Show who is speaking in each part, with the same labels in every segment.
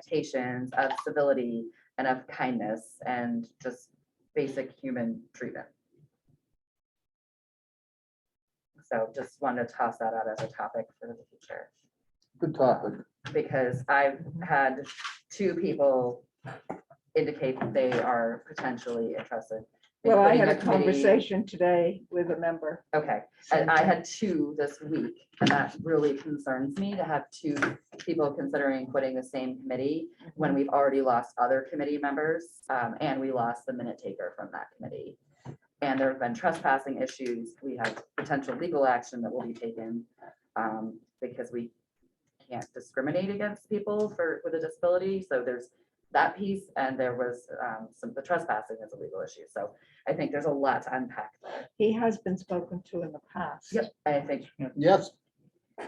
Speaker 1: expectations of civility and of kindness and just basic human treatment. So just wanted to toss that out as a topic for the future
Speaker 2: Good topic.
Speaker 1: because I've had two people indicate that they are potentially interested.
Speaker 3: Well, I had a
Speaker 1: including the committee.
Speaker 3: conversation today with a member.
Speaker 1: Okay, and I had two this week, and that really concerns me to have two people considering quitting the same committee when we've already lost other committee members, um, and we lost the minute taker from that committee. And there have been trespassing issues. We have potential legal action that will be taken, um, because we can't discriminate against people for, with a disability. So there's that piece, and there was, um, some, the trespassing is a legal issue. So I think there's a lot to unpack there.
Speaker 3: He has been spoken to in the past.
Speaker 1: Yep, I think
Speaker 2: Yes.
Speaker 3: Do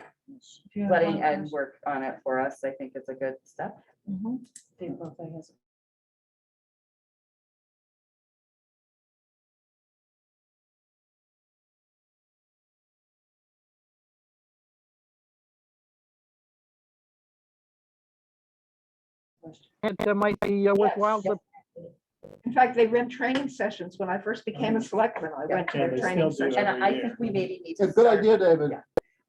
Speaker 3: you have
Speaker 1: letting
Speaker 3: one
Speaker 1: Ed
Speaker 3: person?
Speaker 1: work on it for us, I think it's a good step.
Speaker 3: Mhm.
Speaker 4: And that might be uh, worthwhile to
Speaker 3: In fact, they ran training sessions. When I first became a selectman, I went to
Speaker 5: Uh-huh. Yeah,
Speaker 3: their
Speaker 5: they
Speaker 3: training
Speaker 5: still do
Speaker 3: session.
Speaker 1: And
Speaker 5: every
Speaker 1: I
Speaker 5: year.
Speaker 1: think we maybe need
Speaker 2: It's
Speaker 1: to.
Speaker 2: a good
Speaker 1: start-
Speaker 2: idea, David.
Speaker 1: Yeah.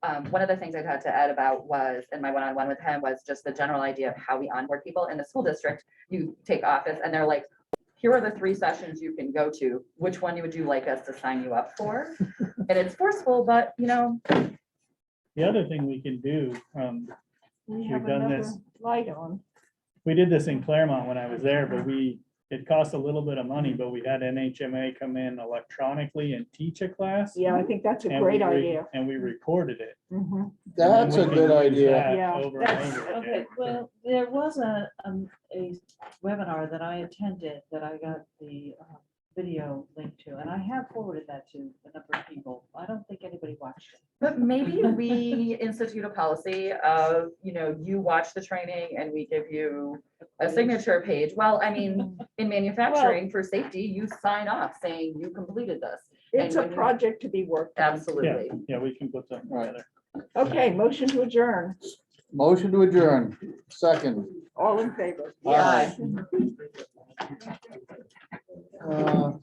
Speaker 1: Um, one of the things I had to add about was, in my one-on-one with him, was just the general idea of how we onboard people in the school district. You take office and they're like, here are the three sessions you can go to, which one would you like us to sign you up for? And it's forceful, but you know,
Speaker 5: The other thing we can do, um,
Speaker 3: We
Speaker 5: You've
Speaker 3: have
Speaker 5: done
Speaker 3: another
Speaker 5: this.
Speaker 3: light on.
Speaker 5: we did this in Claremont when I was there, but we, it cost a little bit of money, but we had NHMA come in electronically and teach a class.
Speaker 3: Yeah, I think that's a
Speaker 5: and
Speaker 3: great
Speaker 5: we re-
Speaker 3: idea.
Speaker 5: And we recorded it.
Speaker 3: Mhm.
Speaker 2: That's a
Speaker 5: And we can
Speaker 2: good
Speaker 5: use
Speaker 2: idea.
Speaker 5: that
Speaker 3: Yeah,
Speaker 5: over and
Speaker 6: That's,
Speaker 5: over again.
Speaker 6: okay, well, there was a, um, a webinar that I attended that I got the uh, video link to, and I have forwarded that to a number of people. I don't think anybody watched it.
Speaker 1: but maybe we institute a policy of, you know, you watch the training and we give you a signature page. Well, I mean, in manufacturing for safety, you sign off saying you completed this.
Speaker 3: It's
Speaker 1: when
Speaker 3: a
Speaker 1: you-
Speaker 3: project to be worked. on.
Speaker 1: Absolutely.
Speaker 5: Yeah, we can put something
Speaker 2: Right.
Speaker 5: together.
Speaker 3: Okay, motion to adjourn.
Speaker 2: Motion to adjourn. Second.
Speaker 3: All in favor?
Speaker 2: Aye. Uh,